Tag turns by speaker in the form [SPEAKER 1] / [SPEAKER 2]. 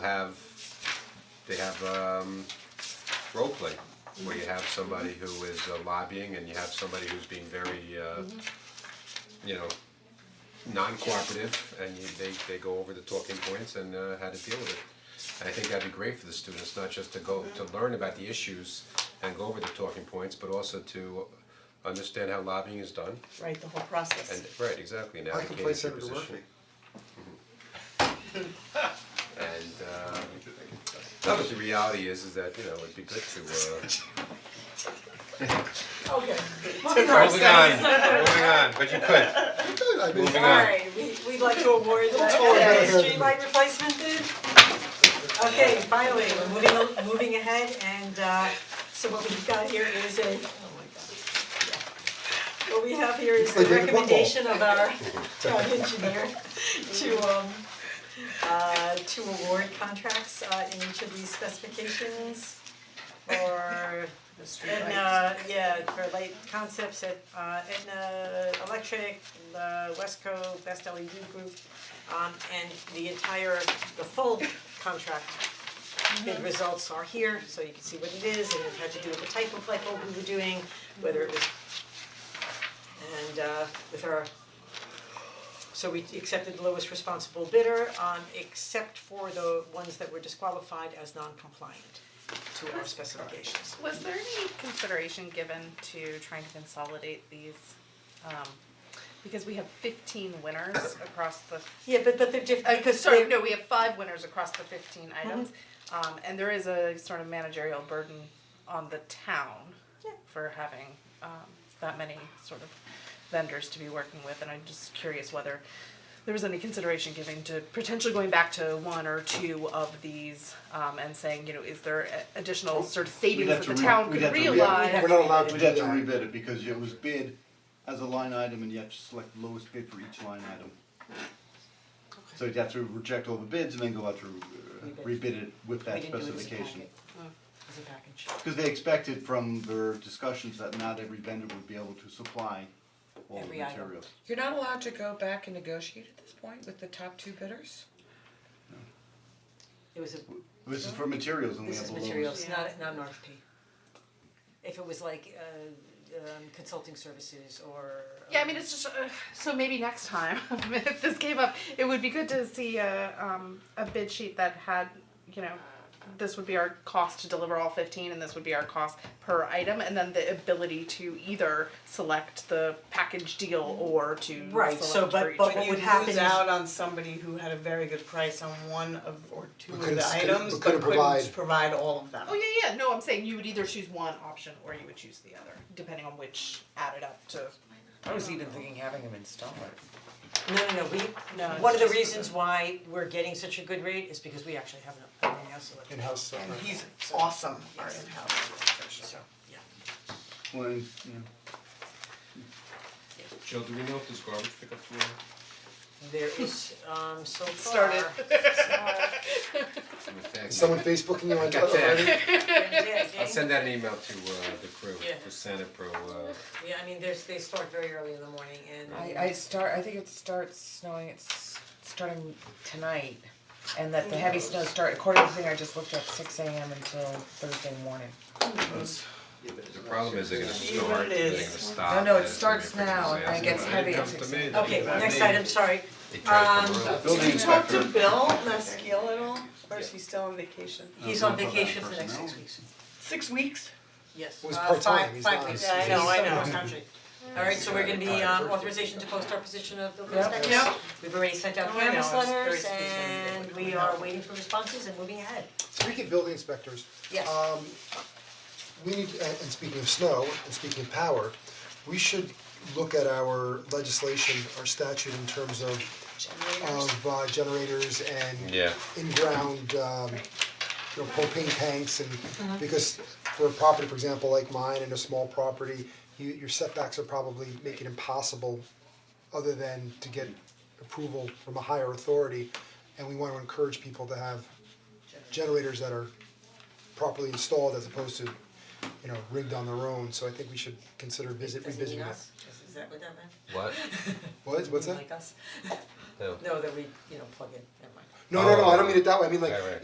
[SPEAKER 1] have, they have um role play, where you have somebody who is uh, lobbying and you have somebody who's being very uh, you know, non-cooperative and you, they they go over the talking points and uh how to deal with it. And I think that'd be great for the students, not just to go, to learn about the issues and go over the talking points, but also to understand how lobbying is done
[SPEAKER 2] Right, the whole process.
[SPEAKER 1] and, right, exactly, and
[SPEAKER 3] I can
[SPEAKER 1] advocate your
[SPEAKER 3] play
[SPEAKER 1] position.
[SPEAKER 3] Senator Murphy.
[SPEAKER 1] And um, no, but the reality is, is that, you know, it'd be good to, uh,
[SPEAKER 2] Okay.
[SPEAKER 1] moving on, moving on, but you could,
[SPEAKER 3] I mean,
[SPEAKER 1] moving on.
[SPEAKER 2] Alright, we we'd like to award the
[SPEAKER 3] all about
[SPEAKER 2] uh,
[SPEAKER 3] that.
[SPEAKER 2] streetlight replacement bid. Okay, finally, we're moving al- moving ahead and uh so what we've got here is a oh what we have here is
[SPEAKER 3] It's
[SPEAKER 2] the
[SPEAKER 3] like David Wimble.
[SPEAKER 2] recommendation of our town engineer to um uh to award contracts uh in each of these specifications for Edna, yeah, for light concepts at uh Edna Electric, the Westco, Best LED E Group, um and the entire, the full contract
[SPEAKER 4] Mm-hmm.
[SPEAKER 2] bid results are here, so you can see what it is, and it had to do with the type of light bulb we were doing, whether it was and uh with our so we accepted the lowest responsible bidder, um except for the ones that were disqualified as non-compliant to our specifications.
[SPEAKER 4] Was there any consideration given to trying to consolidate these? Um, because we have fifteen winners across the,
[SPEAKER 2] Yeah, but but they're different,
[SPEAKER 4] uh,
[SPEAKER 2] because
[SPEAKER 4] sorry,
[SPEAKER 2] they're,
[SPEAKER 4] no, we have Mm-hmm. five winners across the fifteen items. Um, and there is a sort of managerial burden on the town
[SPEAKER 2] Yeah.
[SPEAKER 4] for having, um, that many sort of vendors to be working with. And I'm just curious whether there was any consideration given to potentially going back to one or two of these, um, and saying, you know, is there a- additional sort of savings that the town could realize?
[SPEAKER 3] We're not allowed to
[SPEAKER 5] We'd
[SPEAKER 3] do
[SPEAKER 5] have to
[SPEAKER 3] that.
[SPEAKER 5] rebid it because it was bid as a line item and you have to select the lowest bid for each line item. So you'd have to reject all the bids and then go out to uh,
[SPEAKER 2] Rebid.
[SPEAKER 5] rebid it with that
[SPEAKER 2] We didn't do it as a
[SPEAKER 5] specification.
[SPEAKER 2] packet. as a package.
[SPEAKER 5] Because they expected from their discussions that not every vendor would be able to supply all the
[SPEAKER 2] Every item.
[SPEAKER 5] materials.
[SPEAKER 6] You're not allowed to go back and negotiate at this point with the top two bidders?
[SPEAKER 2] It was a,
[SPEAKER 5] This is for materials and we
[SPEAKER 2] this
[SPEAKER 5] have
[SPEAKER 2] is
[SPEAKER 5] the lowest.
[SPEAKER 2] materials,
[SPEAKER 4] Yeah.
[SPEAKER 2] not not an RFP. If it was like uh um consulting services or.
[SPEAKER 4] Yeah, I mean, it's just uh, so maybe next time if this came up, it would be good to see a um, a bid sheet that had you know this would be our cost to deliver all fifteen, and this would be our cost per item, and then the ability to either select the package deal or to
[SPEAKER 2] um, Right, so
[SPEAKER 4] select for
[SPEAKER 2] but
[SPEAKER 4] each
[SPEAKER 2] but
[SPEAKER 4] one.
[SPEAKER 2] what would happen is.
[SPEAKER 7] You'd lose out on somebody who had a very good price on one of, or two
[SPEAKER 3] We
[SPEAKER 7] of
[SPEAKER 3] couldn't
[SPEAKER 7] the
[SPEAKER 3] sta-
[SPEAKER 7] items,
[SPEAKER 3] we
[SPEAKER 7] but
[SPEAKER 3] couldn't
[SPEAKER 7] couldn't
[SPEAKER 3] provide-
[SPEAKER 7] provide all of them.
[SPEAKER 4] Oh yeah, yeah. No, I'm saying you would either choose one option or you would choose the other, depending on which added up to.
[SPEAKER 6] I was even thinking having them install it.
[SPEAKER 2] No, no, no, we,
[SPEAKER 4] No, it's
[SPEAKER 2] one of the
[SPEAKER 4] just for
[SPEAKER 2] reasons why we're getting such a good rate is because we actually have an in-house electrician,
[SPEAKER 3] In-house uh, solar.
[SPEAKER 7] And he's awesome, our in-house electrician.
[SPEAKER 2] so, yeah.
[SPEAKER 5] Well, and, you know,
[SPEAKER 1] Jill, do we know if there's garbage pickup tomorrow?
[SPEAKER 2] There is, um, so far.
[SPEAKER 4] Started.
[SPEAKER 1] I mean, thank you.
[SPEAKER 3] Is someone Facebooking you oh, on
[SPEAKER 1] Got that.
[SPEAKER 3] already?
[SPEAKER 2] Yeah,
[SPEAKER 1] I'll
[SPEAKER 2] yeah,
[SPEAKER 1] send out an email to uh the crew,
[SPEAKER 2] Yeah.
[SPEAKER 1] to Santa Pro, uh,
[SPEAKER 2] yeah, I mean, there's, they start very early in the morning and.
[SPEAKER 6] I I start, I think it starts snowing, it's starting tonight. And that the heavy snows start, according to the thing I just looked at, six AM until Thursday morning.
[SPEAKER 5] that's- yeah, but it's
[SPEAKER 1] the
[SPEAKER 5] not
[SPEAKER 1] problem is they're gonna
[SPEAKER 5] serious.
[SPEAKER 7] Even
[SPEAKER 1] start,
[SPEAKER 7] it
[SPEAKER 1] they're gonna
[SPEAKER 7] is.
[SPEAKER 1] stop.
[SPEAKER 6] No, no, it
[SPEAKER 1] and it's gonna be a
[SPEAKER 6] starts
[SPEAKER 1] freaking
[SPEAKER 6] now, and it
[SPEAKER 1] disaster.
[SPEAKER 6] gets
[SPEAKER 1] When
[SPEAKER 6] heavy
[SPEAKER 1] It
[SPEAKER 6] at
[SPEAKER 1] comes to
[SPEAKER 6] 6
[SPEAKER 1] me, then
[SPEAKER 2] Okay,
[SPEAKER 1] it comes-
[SPEAKER 2] next item, sorry,
[SPEAKER 1] it tries to
[SPEAKER 2] um,
[SPEAKER 1] ruin it.
[SPEAKER 5] Building
[SPEAKER 7] Did you
[SPEAKER 5] inspector,
[SPEAKER 7] talk to Bill Maskeel at all, or is he still on vacation?
[SPEAKER 2] he's
[SPEAKER 5] Uh,
[SPEAKER 2] on
[SPEAKER 5] what about
[SPEAKER 2] vacation for the next
[SPEAKER 5] personnel?
[SPEAKER 2] six weeks,
[SPEAKER 7] Six weeks?
[SPEAKER 2] yes.
[SPEAKER 3] It was
[SPEAKER 2] Uh,
[SPEAKER 3] part-time,
[SPEAKER 2] five-
[SPEAKER 3] he's
[SPEAKER 2] five
[SPEAKER 3] not-
[SPEAKER 2] weeks.
[SPEAKER 7] Yeah, I know, I know.
[SPEAKER 2] Alright, so we're gonna be um authorization to post our position of the
[SPEAKER 6] Yep.
[SPEAKER 2] inspector.
[SPEAKER 7] Yep.
[SPEAKER 2] We've already sent out
[SPEAKER 7] I know,
[SPEAKER 2] canvas
[SPEAKER 7] it's
[SPEAKER 2] letters
[SPEAKER 7] Thursday's gonna be
[SPEAKER 2] and
[SPEAKER 7] difficult.
[SPEAKER 2] we are waiting for responses and moving ahead.
[SPEAKER 3] Speaking of building inspectors.
[SPEAKER 2] Yes.
[SPEAKER 3] Um, we need, and and speaking of snow, and speaking of power, we should look at our legislation, our statute in terms of of uh generators and
[SPEAKER 1] Yeah.
[SPEAKER 3] in-ground um you know propane tanks and because for a property, for example, like mine and a small property, you your setbacks are probably make it impossible other than to get approval from a higher authority and we wanna encourage people to have generators that are properly installed as opposed to you know rigged on their own, so I think we should consider visit revisiting that.
[SPEAKER 2] is that what that meant?
[SPEAKER 1] What?
[SPEAKER 3] What, what's that?
[SPEAKER 2] Like us?
[SPEAKER 1] No.
[SPEAKER 2] No, that we, you know, plug in, never mind.
[SPEAKER 3] No, no, no, I don't
[SPEAKER 1] Oh.
[SPEAKER 3] mean it that way, I mean like
[SPEAKER 1] Right, right.